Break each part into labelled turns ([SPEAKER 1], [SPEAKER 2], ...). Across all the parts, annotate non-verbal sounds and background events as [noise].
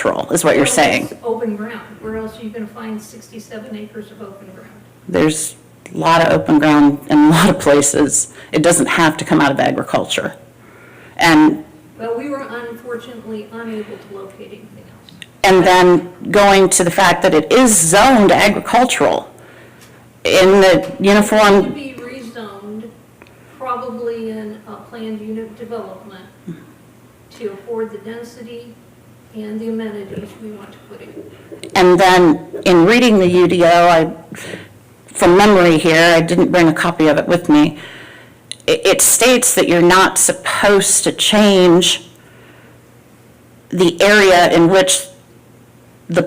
[SPEAKER 1] patrol, is what you're saying.
[SPEAKER 2] Open ground, where else are you gonna find sixty-seven acres of open ground?
[SPEAKER 1] There's a lot of open ground in a lot of places. It doesn't have to come out of agriculture. And,
[SPEAKER 2] Well, we were unfortunately unable to locate anything else.
[SPEAKER 1] and then going to the fact that it is zoned agricultural in the
[SPEAKER 2] It would
[SPEAKER 1] uniform,
[SPEAKER 2] be rezoned, probably in a planned unit development to afford the density and the amenities we want to put in.
[SPEAKER 1] and then in reading the UDO, I, from memory here, I didn't bring a copy of it with me. It, it states that you're not supposed to change the area in which the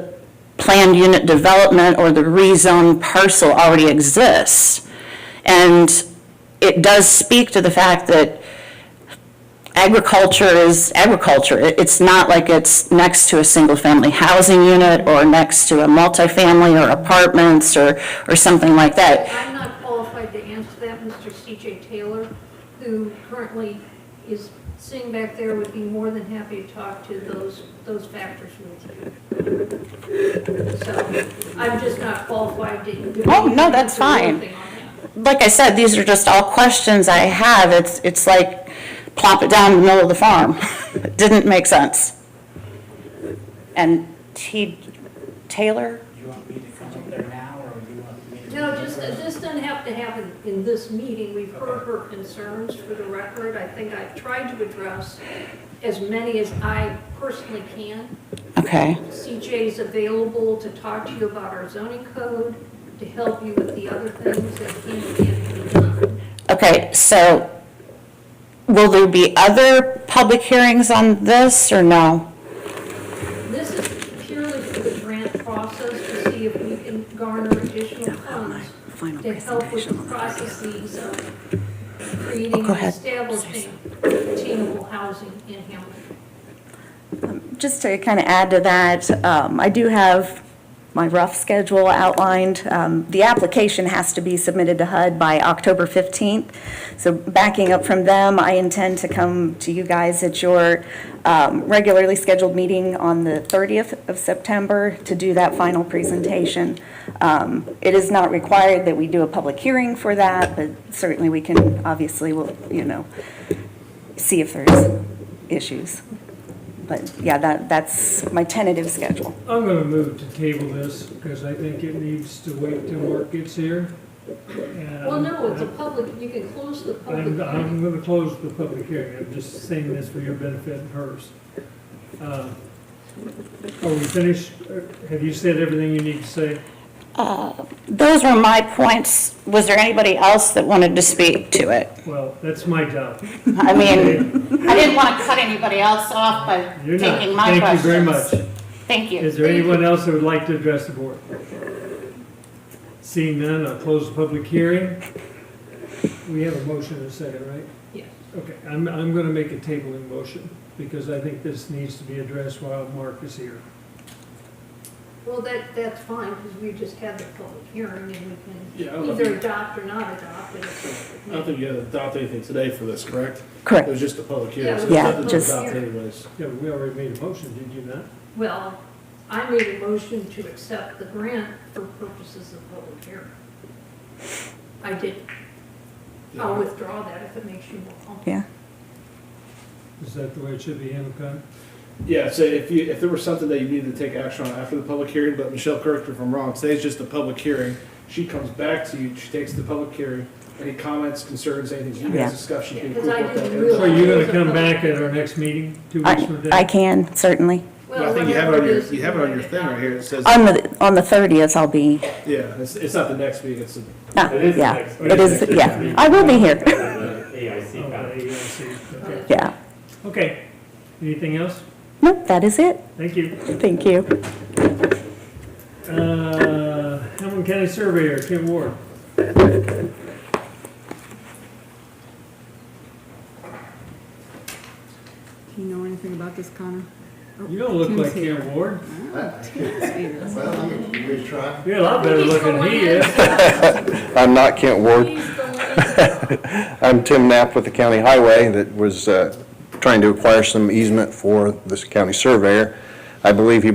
[SPEAKER 1] planned unit development or the rezoned parcel already exists. And it does speak to the fact that agriculture is agriculture. It- It's not like it's next to a single-family housing unit or next to a multifamily or apartments or, or something like that.
[SPEAKER 2] I'm not qualified to answer that, Mr. CJ Taylor, who currently is sitting back there, would be more than happy to talk to those, those factors with you. So I'm just not qualified to. do
[SPEAKER 1] Oh, no, that's
[SPEAKER 2] anything
[SPEAKER 1] fine.
[SPEAKER 2] on that.
[SPEAKER 1] like I said, these are just all questions I have. It's, it's like plop it down in the middle of the farm. [laughs] It didn't make sense. And T, Taylor?
[SPEAKER 3] You want me to come up there now, or you want me to?
[SPEAKER 2] No, just, this doesn't have to happen in this meeting. We've heard her concerns for the record. I think I've tried to address as many as I personally can.
[SPEAKER 1] Okay,
[SPEAKER 2] CJ is available to talk to you about our zoning code, to help you with the other things that can and can't be done.
[SPEAKER 1] okay, so will there be other public hearings on this or no?
[SPEAKER 2] This is purely for the grant process to see if we can garner additional funds to help with the processes of creating
[SPEAKER 1] Go
[SPEAKER 2] and
[SPEAKER 1] ahead.
[SPEAKER 2] establishing attainable housing in Hamilton.
[SPEAKER 4] Just to kind of add to that, um, I do have my rough schedule outlined. Um, The application has to be submitted to HUD by October 15th. So backing up from them, I intend to come to you guys at your um, regularly scheduled meeting on the 30th of September to do that final presentation. Um, It is not required that we do a public hearing for that, but certainly we can, obviously, we'll, you know, see if there's issues. But yeah, that, that's my tentative schedule.
[SPEAKER 5] I'm gonna move to table this, because I think it needs to wait till Mark gets here. And
[SPEAKER 2] Well, no, it's a public, you can close the public
[SPEAKER 5] I'm,
[SPEAKER 2] hearing.
[SPEAKER 5] I'm gonna close the public hearing, I'm just saying this for your benefit and hers. Uh, Are we finished? Uh, Have you said everything you need to say?
[SPEAKER 1] Those were my points. Was there anybody else that wanted to speak to it?
[SPEAKER 5] Well, that's my job.
[SPEAKER 1] I mean,
[SPEAKER 5] [laughs]
[SPEAKER 1] I didn't want to cut anybody else off by
[SPEAKER 5] You're not.
[SPEAKER 1] taking my
[SPEAKER 5] Thank
[SPEAKER 1] questions.
[SPEAKER 5] you very much.
[SPEAKER 1] Thank you.
[SPEAKER 5] Is there anyone else that would like to address the board? Seeing none, I'll close the public hearing. We have a motion and a second, right?
[SPEAKER 2] Yes.
[SPEAKER 5] Okay, I'm, I'm gonna make a tabling motion, because I think this needs to be addressed while Mark is here.
[SPEAKER 2] Well, that, that's fine, because we just had the public hearing and we
[SPEAKER 6] Yeah, I
[SPEAKER 2] can
[SPEAKER 6] don't
[SPEAKER 2] either
[SPEAKER 6] think-
[SPEAKER 2] adopt or not adopt it.
[SPEAKER 6] I don't think you had to adopt anything today for this, correct? It
[SPEAKER 4] Correct.
[SPEAKER 6] was just a public
[SPEAKER 2] Yeah,
[SPEAKER 6] hearing.
[SPEAKER 2] it
[SPEAKER 6] so
[SPEAKER 2] was
[SPEAKER 4] Yeah,
[SPEAKER 6] nothing to
[SPEAKER 4] just-
[SPEAKER 6] adopt anyways.
[SPEAKER 5] Yeah, we already made a motion, did you not?
[SPEAKER 2] Well, I made a motion to accept the grant for purposes of public hearing. I did. I'll withdraw that if it makes you more comfortable.
[SPEAKER 4] Yeah.
[SPEAKER 5] Is that the way it should be handled, Connor?
[SPEAKER 6] Yeah, so if you, if there was something that you needed to take action on after the public hearing, but Michelle, correct me if I'm wrong, today's just a public hearing. She comes back to you, she takes the public hearing, any comments, concerns, anything you
[SPEAKER 4] Yeah.
[SPEAKER 6] guys discuss, she can
[SPEAKER 2] Because I
[SPEAKER 6] incorporate that
[SPEAKER 2] didn't
[SPEAKER 6] in.
[SPEAKER 2] realize-
[SPEAKER 5] So you're gonna come back at our next meeting, two weeks from
[SPEAKER 4] I, I
[SPEAKER 5] today?
[SPEAKER 4] can, certainly.
[SPEAKER 6] But I think you have it on your, you have it on your thing right here, it says,
[SPEAKER 4] On the, on the 30th, I'll be,
[SPEAKER 6] yeah, it's, it's not the next meeting, it's, the-
[SPEAKER 4] ah,
[SPEAKER 7] It is
[SPEAKER 4] yeah.
[SPEAKER 7] next-
[SPEAKER 4] It is, yeah. I will be here.
[SPEAKER 5] [laughs]
[SPEAKER 7] AIC
[SPEAKER 5] Oh,
[SPEAKER 7] got it.
[SPEAKER 5] yeah, I see. Okay.
[SPEAKER 4] Yeah.
[SPEAKER 5] Okay, anything else?
[SPEAKER 4] Nope, that is it.
[SPEAKER 5] Thank you.
[SPEAKER 4] Thank you.
[SPEAKER 5] Uh, Hamilton County Surveyor, Kim Ward.
[SPEAKER 8] Do you know anything about this, Connor?
[SPEAKER 5] You don't look
[SPEAKER 8] Kim's
[SPEAKER 5] like
[SPEAKER 8] here. Oh,
[SPEAKER 5] Kim Ward.
[SPEAKER 9] Well, I'm gonna give it a try.
[SPEAKER 5] You're a lot better looking than he is.
[SPEAKER 10] I'm not Kent Ward. [laughs]
[SPEAKER 2] He's the liaison.
[SPEAKER 10] I'm Tim Knapp with the county highway that was uh, trying to acquire some easement for this county surveyor. I believe he